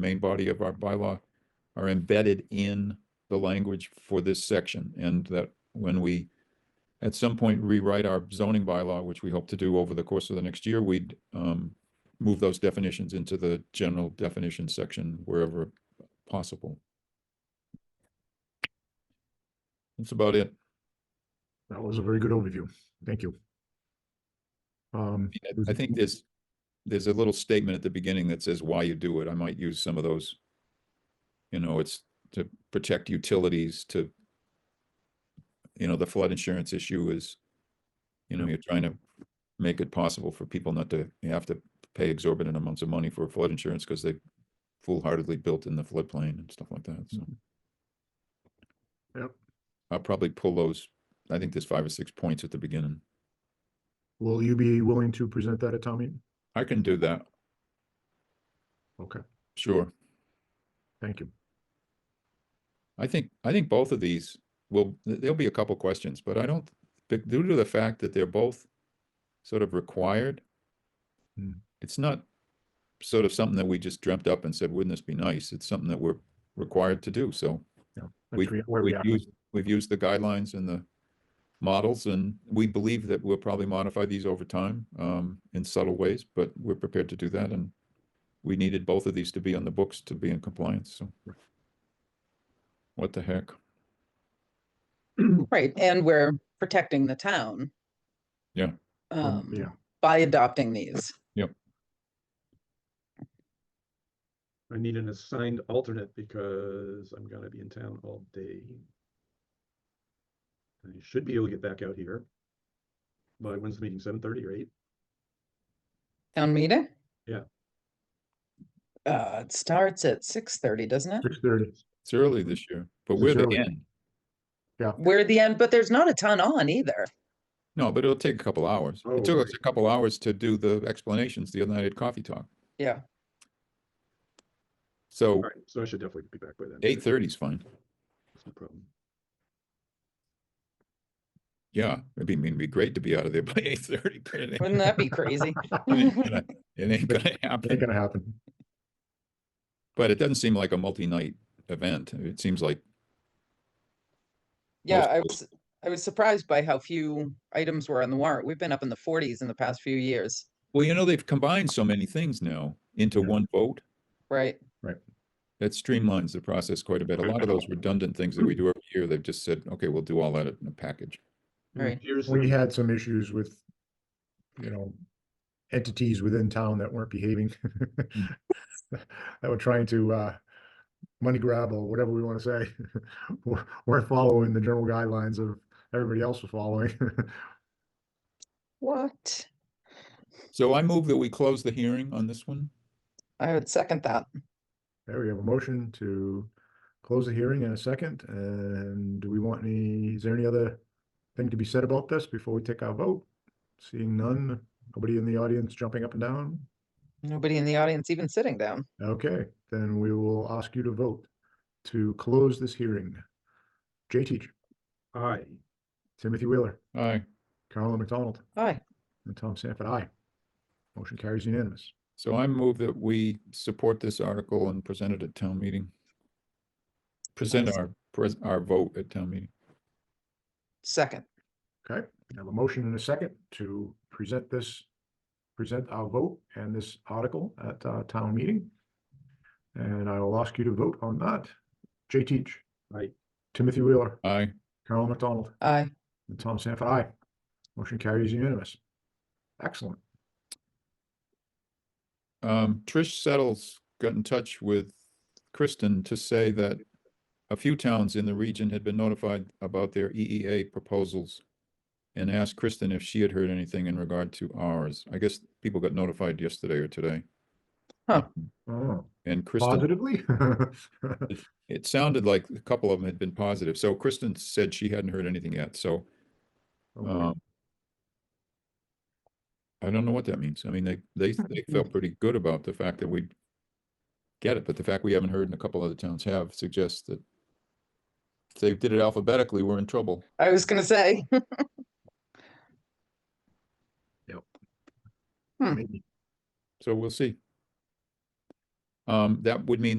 main body of our bylaw are embedded in the language for this section and that when we at some point rewrite our zoning bylaw, which we hope to do over the course of the next year, we'd um move those definitions into the general definition section wherever possible. That's about it. That was a very good overview. Thank you. Um, I think there's, there's a little statement at the beginning that says why you do it. I might use some of those. You know, it's to protect utilities to, you know, the flood insurance issue is, you know, you're trying to make it possible for people not to have to pay exorbitant amounts of money for flood insurance because they foolhardily built in the floodplain and stuff like that. So. Yep. I'll probably pull those. I think there's five or six points at the beginning. will you be willing to present that at town meeting? I can do that. Okay, Sure. thank you. I think, I think both of these will, th- there'll be a couple questions, but I don't, be- due to the fact that they're both sort of required. Hmm. It's not sort of something that we just dreamt up and said, wouldn't this be nice? It's something that we're required to do, so That's We- re- where we've are. used, we've used the guidelines and the models, and we believe that we'll probably modify these over time, um, in subtle ways, but we're prepared to do that, and we needed both of these to be on the books to be in compliance, so. What the heck? Right, and we're protecting the town. Yeah. Um, Um, Yeah, by adopting these. I need an assigned alternate because I'm gonna be in town all day. I should be able to get back out here. By when's the meeting, seven thirty or eight? Town meeting? Yeah. Uh, it starts at six thirty, doesn't it? six thirty. It's early this year, but It's we're the early. end. We're at the end, but there's not a ton on either. No, but it'll take a couple hours. Oh, It took us a right. couple hours to do the explanations the other night at Coffee Talk. Yeah. So Alright, so I should definitely be back by then. eight thirty is fine. No problem. Yeah, it'd be, I mean, it'd be great to be out of there by eight thirty. It Wouldn't that be crazy? ain't gonna- it ain't gonna Ain't happen, gonna happen. but it doesn't seem like a multi-night event. It seems like, Yeah, I Most- was, I was surprised by how few items were on the warrant. We've been up in the forties in the past few years, well, you know, they've combined so many things now into Yeah. one vote. right? That streamlines the process quite a bit. A lot of those redundant things that we do every year, they've just said, okay, we'll do all that in a package. It Right. appears that- We had some issues with, you know, entities within town that weren't behaving. That were trying to, uh, money grab or whatever we want to say. We're, we're following the general guidelines of everybody else was following. What? So I move that we close the hearing on this one. I would second that. There we have a motion to close the hearing in a second, and do we want any, is there any other thing to be said about this before we take our vote? Seeing none, nobody in the audience jumping up and down? Nobody in the audience even sitting down. Okay, then we will ask you to vote to close this hearing. Jay Teach, Aye. Timothy Wheeler, Aye. Carolyn McDonald, Hi, and Tom Sanford, aye. Motion carries unanimous. So I move that we support this article and present it at town meeting. Present Nice. our, pres- our vote at town meeting. second. Okay, we have a motion and a second to present this, present our vote and this article at uh town meeting. And I will ask you to vote on that. Jay Teach. Aye. Timothy Wheeler, Aye. Carol McDonald, Aye. and Tom Sanford, aye. Motion carries unanimous. Excellent. Um, Trish Settles got in touch with Kristen to say that a few towns in the region had been notified about their EEA proposals and asked Kristen if she had heard anything in regard to ours. I guess people got notified yesterday or today. Huh. Oh, And Kristen positively? It sounded like a couple of them had been positive. So Kristen said she hadn't heard anything yet, so Okay. um. I don't know what that means. I mean, they, they, they felt pretty good about the fact that we get it, but the fact we haven't heard and a couple other towns have suggests that if they did it alphabetically, we're in trouble. I was gonna say, Maybe. So we'll see. Um, that would mean